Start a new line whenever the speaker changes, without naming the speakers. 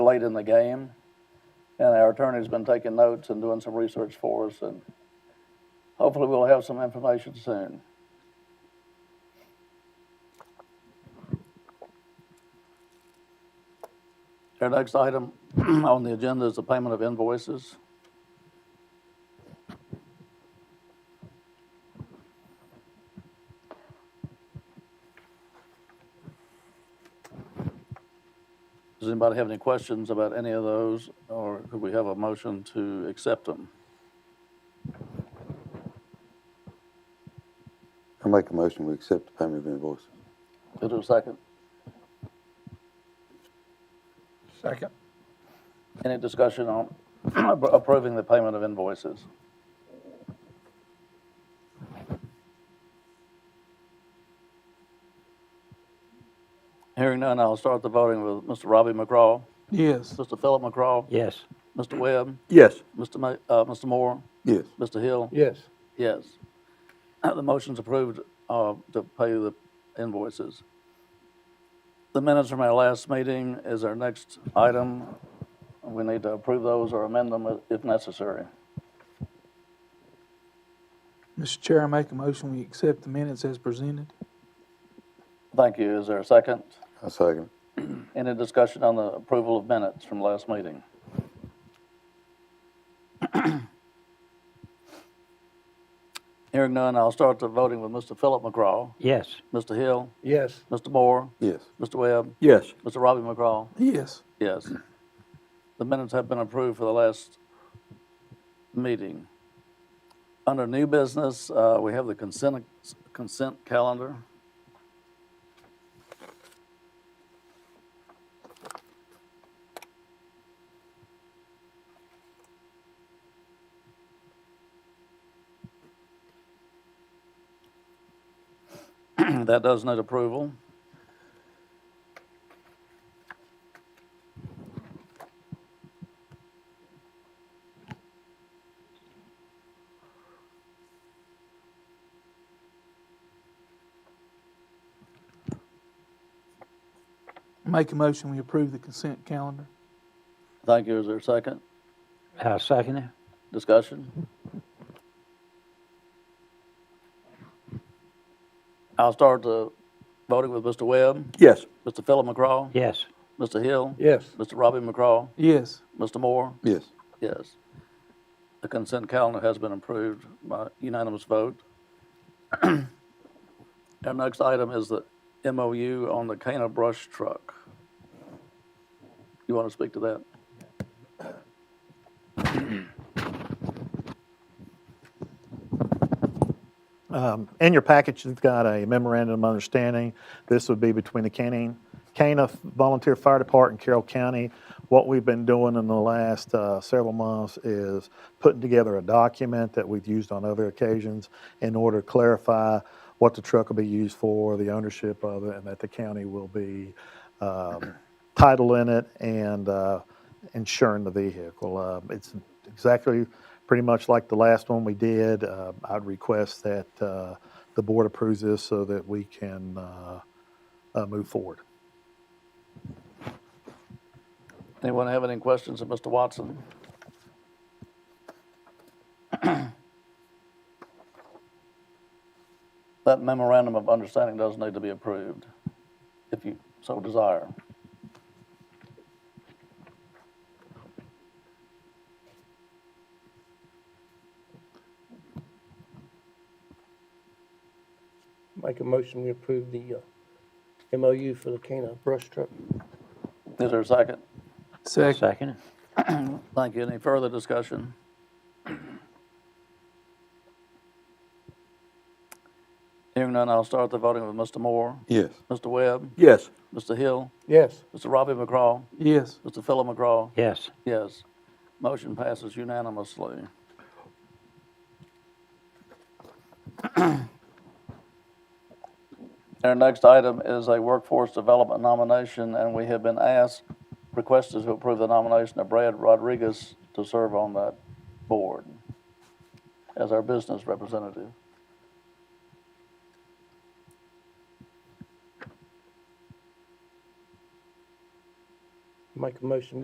late in the game. And our attorney's been taking notes and doing some research for us, and hopefully we'll have some information soon. Our next item on the agenda is the payment of invoices. Does anybody have any questions about any of those, or could we have a motion to accept them?
I make a motion, we accept the payment of invoices.
Is there a second?
Second.
Any discussion on appro- approving the payment of invoices? Hearing none, I'll start the voting with Mr. Robbie McCraw,
Yes.
Mr. Philip McCraw,
Yes.
Mr. Webb,
Yes.
Mr. Ma, uh, Mr. Moore,
Yes.
Mr. Hill.
Yes.
Yes. The motion's approved uh, to pay the invoices. The minutes from our last meeting is our next item. We need to approve those or amend them if necessary.
Mr. Chair, I make a motion, we accept the minutes as presented.
Thank you. Is there a second?
I second.
Any discussion on the approval of minutes from last meeting? Hearing none, I'll start the voting with Mr. Philip McCraw,
Yes.
Mr. Hill,
Yes.
Mr. Moore,
Yes.
Mr. Webb,
Yes.
Mr. Robbie McCraw,
Yes.
Yes. The minutes have been approved for the last meeting. Under new business, uh, we have the consent, consent calendar. That does need approval.
Make a motion, we approve the consent calendar.
Thank you. Is there a second?
I Uh, second it.
Discussion? I'll start the voting with Mr. Webb,
Yes.
Mr. Philip McCraw,
Yes.
Mr. Hill,
Yes.
Mr. Robbie McCraw,
Yes.
Mr. Moore,
Yes.
yes. The consent calendar has been approved by unanimous vote. Our next item is the MOU on the Cana brush truck. You want to speak to that?
In your package, you've got a memorandum of understanding. This would be between the Canaan, Cana Volunteer Fire Department and Carroll County. What we've been doing in the last uh, several months is putting together a document that we've used on other occasions in order to clarify what the truck will be used for, the ownership of it, and that the county will be um, title in it and uh, insuring the vehicle. Uh, It's exactly pretty much like the last one we did. Uh, I'd request that uh, the board approves this so that we can uh, uh, move forward.
Anyone have any questions of Mr. Watson? That memorandum of understanding does need to be approved, if you so desire.
Make a motion, we approve the uh, MOU for the Cana brush truck.
Is there a second?
Second.
Second it.
Thank you. Any further discussion? Hearing none, I'll start the voting with Mr. Moore,
Yes.
Mr. Webb,
Yes.
Mr. Hill,
Yes.
Mr. Robbie McCraw,
Yes.
Mr. Philip McCraw,
Yes.
Yes. Motion passes unanimously. Our next item is a workforce development nomination, and we have been asked, requested to approve the nomination of Brad Rodriguez to serve on that board as our business representative.
Make a motion,